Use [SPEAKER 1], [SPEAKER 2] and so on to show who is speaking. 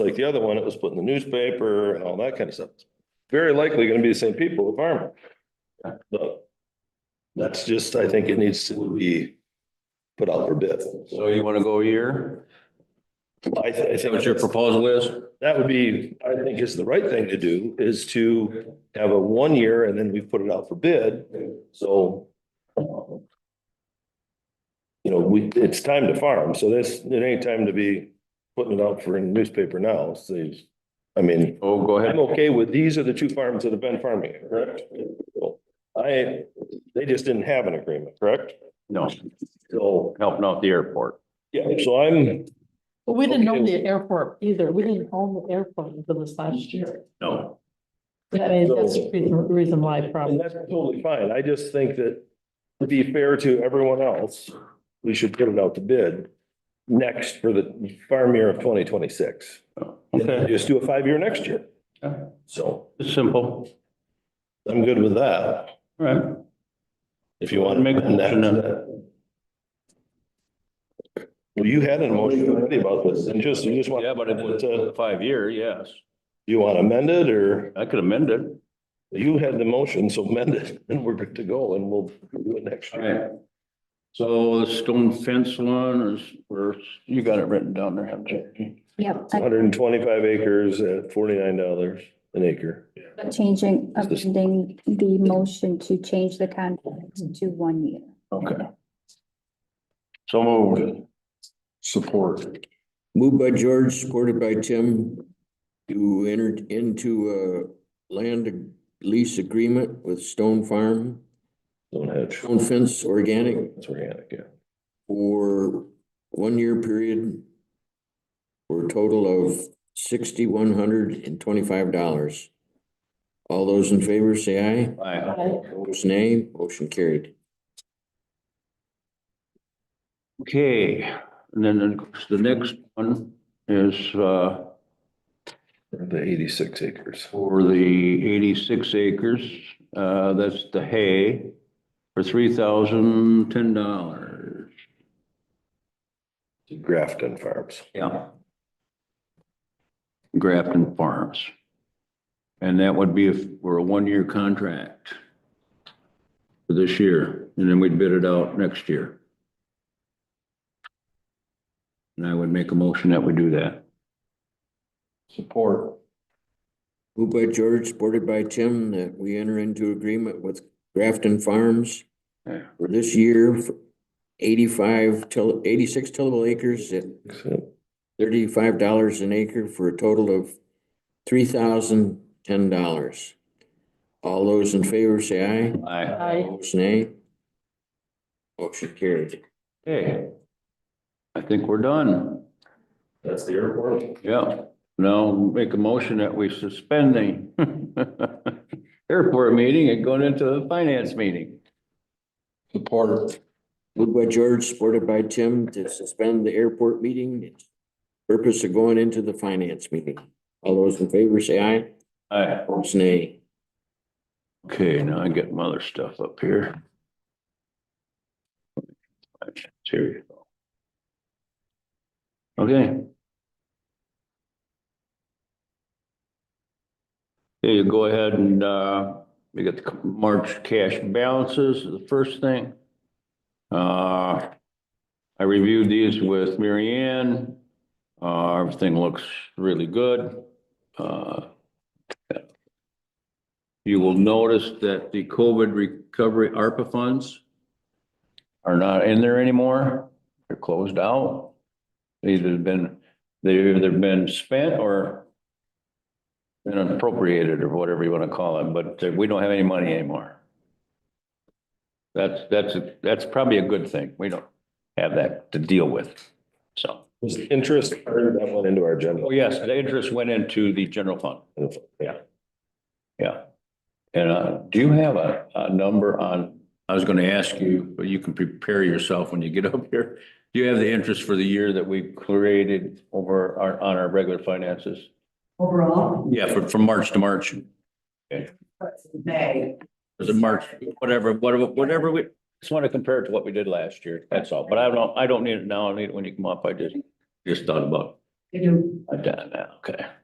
[SPEAKER 1] like the other one, it was put in the newspaper and all that kind of stuff. Very likely gonna be the same people, the farmer. But that's just, I think it needs to be put out for bid.
[SPEAKER 2] So you want to go a year?
[SPEAKER 1] I, th- I
[SPEAKER 2] Is that
[SPEAKER 1] think.
[SPEAKER 2] what your proposal is?
[SPEAKER 1] That would be, I think is the right thing to do, is to have a one year and then we put it out for bid, so. um, You know, we, it's time to farm, so this, it ain't time to be putting it out for a newspaper now, so. you- I mean,
[SPEAKER 2] Oh, go
[SPEAKER 1] I'm
[SPEAKER 2] ahead.
[SPEAKER 1] okay with, these are the two farms that have been farming, it, correct? So, I, they just didn't have an agreement, correct?
[SPEAKER 2] No,
[SPEAKER 1] So,
[SPEAKER 2] helping out the airport.
[SPEAKER 1] yeah, so I'm,
[SPEAKER 3] But we didn't own
[SPEAKER 1] Okay.
[SPEAKER 3] the airport Mm-hmm. either. We didn't own the airport until this last year.
[SPEAKER 2] No.
[SPEAKER 3] I mean, that's the reason- reason why
[SPEAKER 1] And
[SPEAKER 3] probably.
[SPEAKER 1] that's totally fine. I just think that to be fair to everyone else, we should put it out to bid next for the farm year of twenty twenty-six.
[SPEAKER 2] Oh,
[SPEAKER 1] And then just do a five-year next year. So
[SPEAKER 2] It's simple.
[SPEAKER 1] I'm good with that.
[SPEAKER 2] All right.
[SPEAKER 1] If you want. to
[SPEAKER 2] Make a motion then.
[SPEAKER 1] Well, you had an emotion already about this and just, you just want.
[SPEAKER 2] Yeah, but it was a
[SPEAKER 1] Do
[SPEAKER 2] five year, yes.
[SPEAKER 1] You want amended or
[SPEAKER 2] I could amend it.
[SPEAKER 1] you had the motion, so amend it and we're good to go and we'll do it next
[SPEAKER 2] All
[SPEAKER 1] year.
[SPEAKER 2] right. So the stone fence one is, where you got it written down there, haven't you?
[SPEAKER 4] Yep, I-
[SPEAKER 1] Hundred and twenty-five acres at forty-nine dollars an acre.
[SPEAKER 4] changing,
[SPEAKER 1] Is this-
[SPEAKER 4] amending the motion to change the contract to one year.
[SPEAKER 2] Okay. So moved.
[SPEAKER 5] Support. Moved by George, supported by Tim, to enter into a land lease agreement with Stone Farm,
[SPEAKER 1] Don't hedge.
[SPEAKER 5] Stone Fence Organic
[SPEAKER 1] It's organic, yeah.
[SPEAKER 5] for one-year period for a total of sixty-one hundred and twenty-five dollars. All those in favor, say aye.
[SPEAKER 2] Aye.
[SPEAKER 5] Opposed, nay. Motion carried.
[SPEAKER 2] Okay, and then the- the next one is, uh,
[SPEAKER 1] Or The eighty-six acres.
[SPEAKER 2] for the eighty-six acres, uh, that's the hay, for three thousand ten dollars.
[SPEAKER 1] Grafton Farms.
[SPEAKER 2] Yeah. Grafton Farms. And that would be if, for a one-year contract for this year, and then we'd bid it out next year. And I would make a motion that we do that.
[SPEAKER 1] Support.
[SPEAKER 5] Moved by George, supported by Tim, that we enter into agreement with Grafton Farms
[SPEAKER 2] Yeah.
[SPEAKER 5] for this year, for eighty-five till, eighty-six tillable acres at thirty-five dollars an acre for a total of three thousand ten dollars. All those in favor say aye.
[SPEAKER 2] Aye.
[SPEAKER 3] I,
[SPEAKER 5] Opposed, nay. Motion carried.
[SPEAKER 2] Okay. I think we're done.
[SPEAKER 1] That's the airport.
[SPEAKER 2] Yeah, now make a motion that we suspend the airport meeting and going into the finance meeting.
[SPEAKER 5] Support. Moved by George, supported by Tim, to suspend the airport meeting. Purpose of going into the finance meeting. All those in favor say aye.
[SPEAKER 2] Aye.
[SPEAKER 5] Opposed, nay.
[SPEAKER 2] Okay, now I get my other stuff up here. Here we go. Okay. There you go ahead and, uh, we got the March cash balances, the first thing. Uh, I reviewed these with Mary Ann. Uh, everything looks really good. Uh, you will notice that the COVID recovery ARPA funds are not in there anymore. They're closed out. They've either been, they've either been spent or been appropriated or whatever you want to call it, but we don't have any money anymore. That's, that's, that's probably a good thing. We don't have that to deal with, so.
[SPEAKER 1] Was the interest earned that went into our agenda?
[SPEAKER 2] Oh, yes, the interest went into the general fund.
[SPEAKER 1] Yeah.
[SPEAKER 2] Yeah. And uh, do you have a, a number on, I was gonna ask you, but you can prepare yourself when you get up here. Do you have the interest for the year that we created over our, on our regular finances?
[SPEAKER 6] Overall,
[SPEAKER 2] Yeah, from, from March to March.
[SPEAKER 6] what's in May?
[SPEAKER 2] Was it March, whatever, whatever, whatever we, just want to compare it to what we did last year, that's all. But I don't, I don't need it now, I need it when you come up. I just, just thought about
[SPEAKER 6] They do.
[SPEAKER 2] I've done that, okay.